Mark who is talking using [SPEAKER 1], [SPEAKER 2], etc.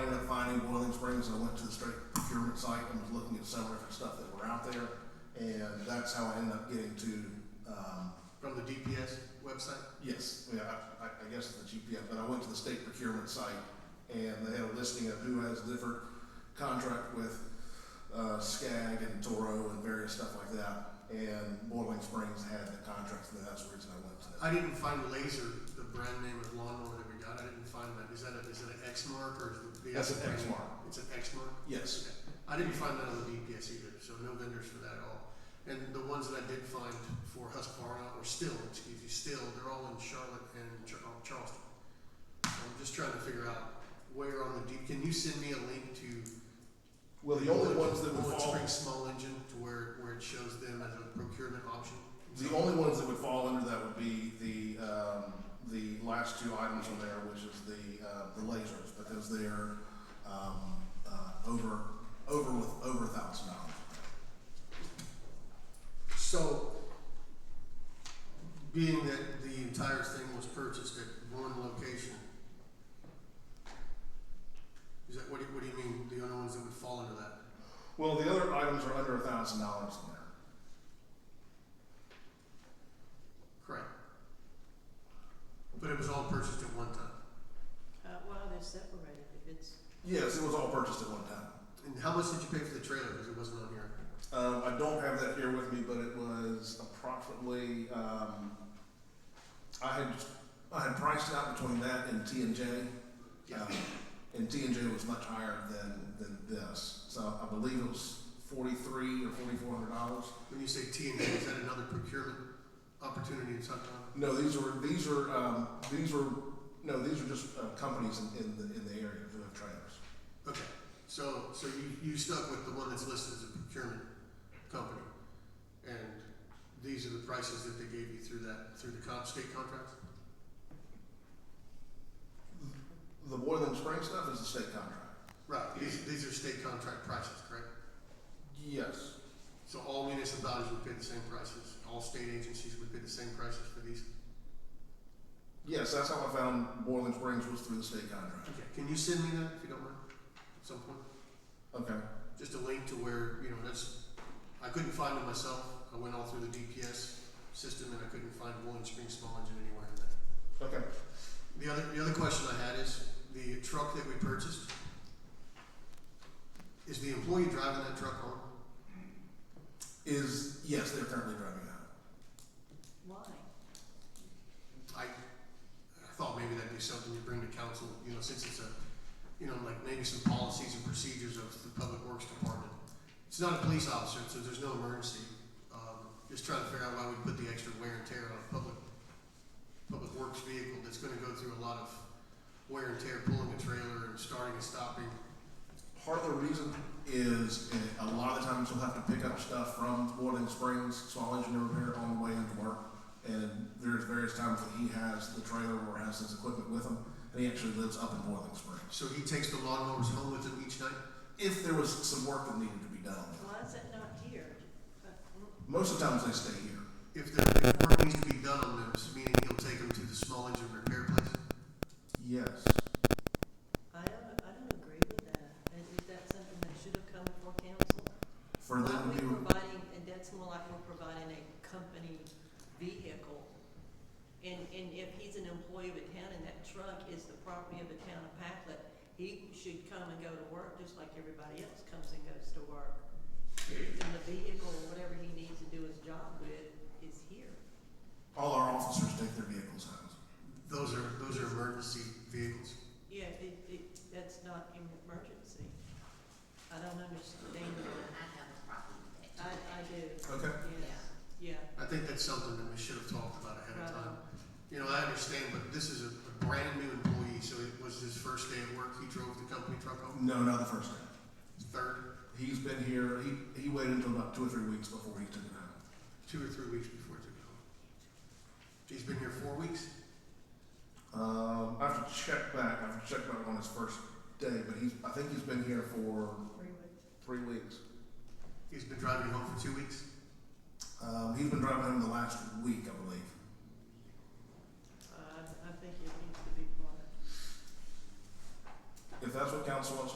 [SPEAKER 1] Springs, I went to the state procurement site and was looking at several different stuff that were out there. And that's how I ended up getting to, um,
[SPEAKER 2] From the DPS website?
[SPEAKER 1] yes, yeah, I, I I guess the GPS, but I went to the state procurement site and they had a listing of who has different contract with, uh, SCAG and Toro and various stuff like that. And Boiling Springs had the contracts and that's the reason I went to that.
[SPEAKER 2] I didn't find Laser, the brand name of lawnmower that we got, I didn't find that, is that a, is that an X mark or is the? the
[SPEAKER 1] That's
[SPEAKER 2] other
[SPEAKER 1] an X
[SPEAKER 2] brand-
[SPEAKER 1] mark.
[SPEAKER 2] It's an X mark?
[SPEAKER 1] Yes,
[SPEAKER 2] Okay. I didn't find that on the DPS either, so no vendors for that at all. And the ones that I did find for Husqvarna, or still, excuse me, still, they're all in Charlotte and Char- uh, Charleston. So I'm just trying to figure out where on the D, can you send me a link to?
[SPEAKER 1] well, the only ones that would
[SPEAKER 2] Bullet
[SPEAKER 1] fall
[SPEAKER 2] Spring Small Engine to where, where it shows them as a procurement option?
[SPEAKER 1] The only ones that would fall under that would be the, um, the last two items on there, which is the, uh, the lasers, because they're, um, uh, over, over with, over a thousand dollars.
[SPEAKER 2] So, being that the entire thing was purchased at one location, is that, what do you, what do you mean, the only ones that would fall under that?
[SPEAKER 1] Well, the other items are under a thousand dollars on there.
[SPEAKER 2] Correct. But it was all purchased at one time.
[SPEAKER 3] Uh, well, they're separated, if it's,
[SPEAKER 1] Yes, it was all purchased at one time.
[SPEAKER 2] And how much did you pay for the trailer, because it wasn't on here?
[SPEAKER 1] Um, I don't have that here with me, but it was approximately, um, I had, I had priced out between that and T and J. Um, and T and J was much higher than, than this, so I believe it was forty-three or forty-four hundred dollars.
[SPEAKER 2] When you say T and A, is that another procurement opportunity in Sacramento?
[SPEAKER 1] No, these were, these were, um, these were, no, these are just, uh, companies in, in the, in the area who have trailers.
[SPEAKER 2] Okay, so, so you, you stuck with the one that's listed as a procurement company? And these are the prices that they gave you through that, through the con, state contracts?
[SPEAKER 1] The Boiling Spring stuff is a state contract.
[SPEAKER 2] Right, these, these are state contract prices, correct?
[SPEAKER 1] Yes.
[SPEAKER 2] So all municipalities would pay the same prices, all state agencies would pay the same prices for these?
[SPEAKER 1] Yes, that's how I found Boiling Springs was through the state contract.
[SPEAKER 2] Okay, can you send me that if you don't mind, at some point?
[SPEAKER 1] Okay.
[SPEAKER 2] Just a link to where, you know, that's, I couldn't find it myself, I went all through the DPS system and I couldn't find Bowling Spring Small Engine anywhere in that.
[SPEAKER 1] Okay.
[SPEAKER 2] The other, the other question I had is, the truck that we purchased, is the employee driving that truck home?
[SPEAKER 1] Is, yes, they're currently driving out.
[SPEAKER 3] why?
[SPEAKER 2] I, I thought maybe that'd be something you bring to council, you know, since it's a, you know, like maybe some policies and procedures of the public works department. It's not a police officer, so there's no emergency, um, just trying to figure out why we put the extra wear and tear on a public, public works vehicle that's gonna go through a lot of wear and tear, pulling a trailer and starting and stopping.
[SPEAKER 1] Part of the reason is eh, a lot of the times you'll have to pick up stuff from Boiling Springs, small engine repair on the way into work. And there's various times that he has the trailer or has his equipment with him, and he actually lives up in Boiling Springs.
[SPEAKER 2] So he takes the lawnmowers home with him each night?
[SPEAKER 1] If there was some work that needed to be done,
[SPEAKER 3] Why is it not here? Uh,
[SPEAKER 1] most of the times they stay here.
[SPEAKER 2] If the if work needs to be done on them, meaning he'll take them to the small engine repair place?
[SPEAKER 1] Yes.
[SPEAKER 3] I don't, I don't agree with that. Is is that something that should have come before council?
[SPEAKER 1] For
[SPEAKER 3] Why
[SPEAKER 1] them
[SPEAKER 3] are we
[SPEAKER 1] to,
[SPEAKER 3] providing, and that's more like we're providing a company vehicle. And, and if he's an employee of a town and that truck is the property of the town of Packlet, he should come and go to work just like everybody else comes and goes to work. And the vehicle, or whatever he needs to do his job with, is here.
[SPEAKER 1] all our officers take their vehicles home.
[SPEAKER 2] Those are, those are emergency vehicles.
[SPEAKER 3] Yeah, it, it, that's not an emergency. I don't understand
[SPEAKER 4] I
[SPEAKER 3] that.
[SPEAKER 4] have a problem with that.
[SPEAKER 3] I, I do,
[SPEAKER 1] Okay.
[SPEAKER 3] yes, yeah,
[SPEAKER 2] I think that's something that we should have talked about ahead of
[SPEAKER 3] Right.
[SPEAKER 2] time. You know, I understand, but this is a, a brand new employee, so it was his first day at work, he drove the company truck home,
[SPEAKER 1] No, not the first time.
[SPEAKER 2] third,
[SPEAKER 1] He's been here, he, he waited until about two or three weeks before he took it home.
[SPEAKER 2] two or three weeks before he took it home. He's been here four weeks?
[SPEAKER 1] Um, I have to check back. I have to check back on his first day, but he's. I think he's been here for
[SPEAKER 3] three weeks.
[SPEAKER 1] three weeks.
[SPEAKER 2] He's been driving home for two weeks?
[SPEAKER 1] Um, he's been driving home the last week, I believe.
[SPEAKER 3] Uh, I, I think it needs to be part of
[SPEAKER 1] If that's what council wants